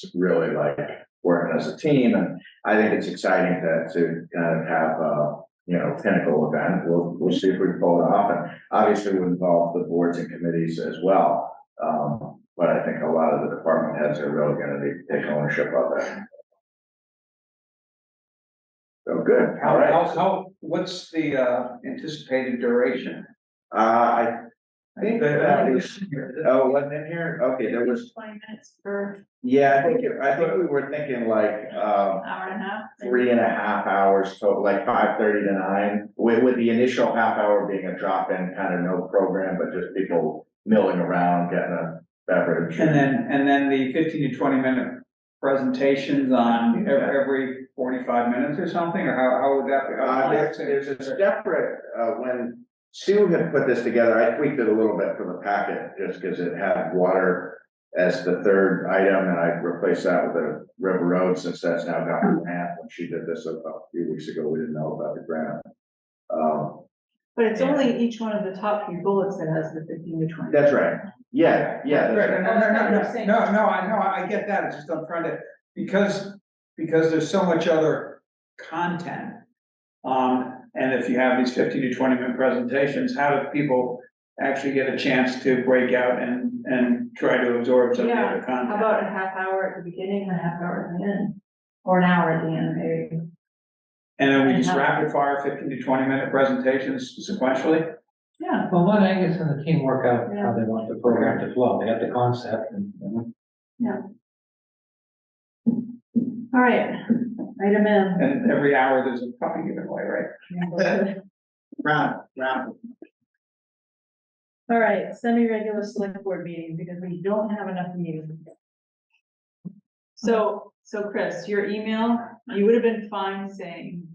just really like working as a team, and I think it's exciting to, to kind of have a, you know, pinnacle event. We'll, we'll see if we can pull it off, and obviously we involve the boards and committees as well. Um, but I think a lot of the department heads are really gonna be, take ownership of that. So good, all How, right. how, how, what's the uh, anticipated duration? Uh, I think uh, that is, Well, oh, wasn't in here? Okay, there was, Twenty minutes per yeah, I think, it- I think we were thinking like, um, hour and a half. three and a half hours total, like five thirty to nine, with, with the initial half hour being a drop-in kind of no program, but just people milling around, getting a beverage. And then, and then the fifteen to twenty minute presentations on ev- every forty-five minutes or something, or how, how would that be? Uh, there's, there's a separate, uh, when Sue had put this together, I tweaked it a little bit for the packet, just because it had water as the third item, and I replaced that with a river road, since that's now got a grant, when she did this a a few weeks ago, we didn't know about the grant. Um, But it's only each one of the top few bullets that has the fifteen to twenty. That's right. Yeah, yeah, that's Right, right. no, no, no, That's what I'm saying. no, no, no, I know, I get that, it's just I'm trying to, because, because there's so much other content. Um, and if you have these fifteen to twenty minute presentations, how do people actually get a chance to break out and, and try to absorb some of the Yeah, other How content? about a half hour at the beginning and a half hour at the end? Or an hour at the end, maybe? And then we just Yeah. rapid fire fifteen to twenty minute presentations sequentially? Yeah. let Angus and the team work out Yeah. how they want the program to flow. They got the concept and. and All right, item M. And every hour there's a puppy giveaway, right? Round, round. All right, semi-regular select board meeting because we don't have enough meetings. So, so Chris, your email, you would have been fine saying,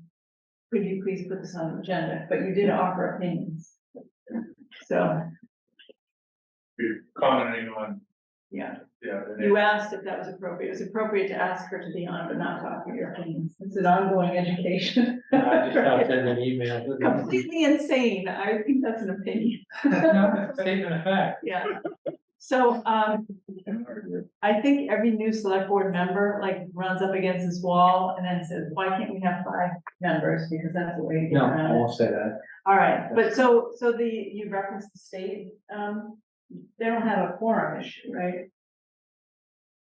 could you please put this on the agenda, but you did offer opinions. So, commenting on, yeah. yeah, the You asked if that was appropriate. It was appropriate to ask her to be on, but not talk to your opinions. It's an ongoing education. I just out sending an email. Completely insane. I think that's an opinion. No, Statement of fact. Yeah. So, um, I think every new select board member like runs up against this wall and then says, why can't we have five members? Because that's the way to get No, I around it. won't say that. All right, but so, so the, you referenced the state, um, they don't have a quorum issue, right?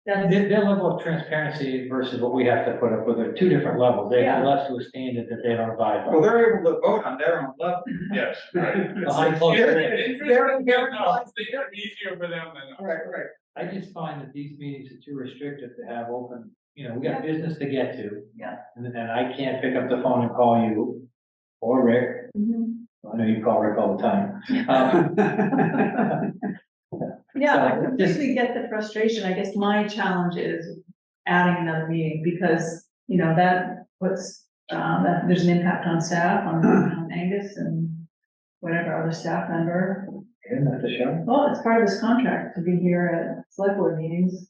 That's, Their, their level of transparency versus what we have to put up with are two different levels. They Yeah. hold us to a standard that they don't abide Well, by. they're able to vote on their own level. Yes, right. Behind closed doors. It's very- very nice. They got easier for them than. Right, right. I just find that these meetings are too restrictive to have open, you know, we got business to get to. Yeah. And, and I can't pick up the phone and call you or Rick Mhm. I know you call Rick all the time. Uh, Um, yeah, I So, just- completely get the frustration. I guess my challenge is adding another meeting because, you know, that puts, um, that there's an impact on staff, on on Angus and whatever other staff member. Isn't that the show? Well, it's part of this contract to be here at select board meetings.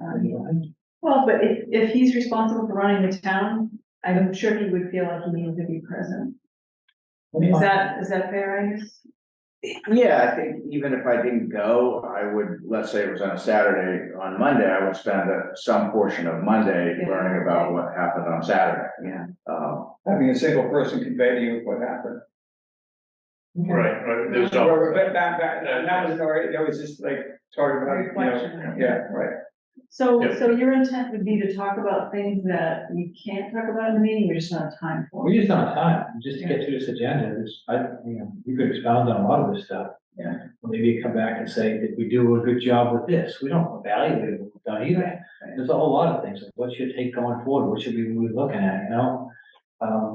Um, Well, but if, if he's responsible for running the town, I'm sure he would feel like he needed to be present. Is that, is that fair, Angus? Yeah, I think even if I didn't go, I would, let's say it was on a Saturday, on Monday, I would spend uh, some portion of Monday Yeah. learning about what happened on Saturday. Yeah. Um, Having a single person convey to you what happened. Right, right, there's no, But but back, back, and that was already, that was just like, talking about, you know, Reflection. yeah, right. So, Yeah. so your intent would be to talk about things that you can't talk about in the meeting, you just don't have time for. We just don't have time, just to get through this agenda, this, I, you know, you could expound on a lot of this stuff. Yeah. Or Maybe you come back and say, did we do a good job with this? We don't evaluate what we've done either. There's a whole lot of things, like what's your take going forward, what should we be looking at, you know? Um,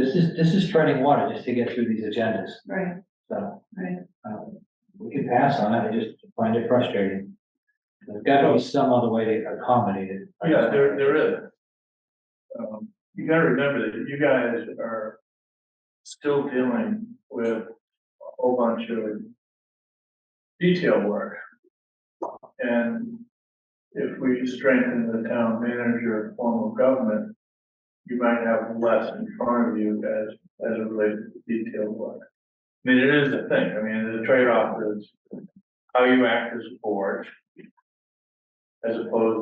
This is, this is treading water just to get through these agendas, Right, so. Right. um, We can pass on it, I just find it frustrating. There's gotta be some other way to accommodate it. yeah, there, there is. Um, you gotta remember that you guys are still dealing with a whole bunch of detail work. And if we strengthen the town manager form of government, you might have less in front of you as, as it relates to detailed work. I mean, it is a thing, I mean, the trade-off is how you act as a board as opposed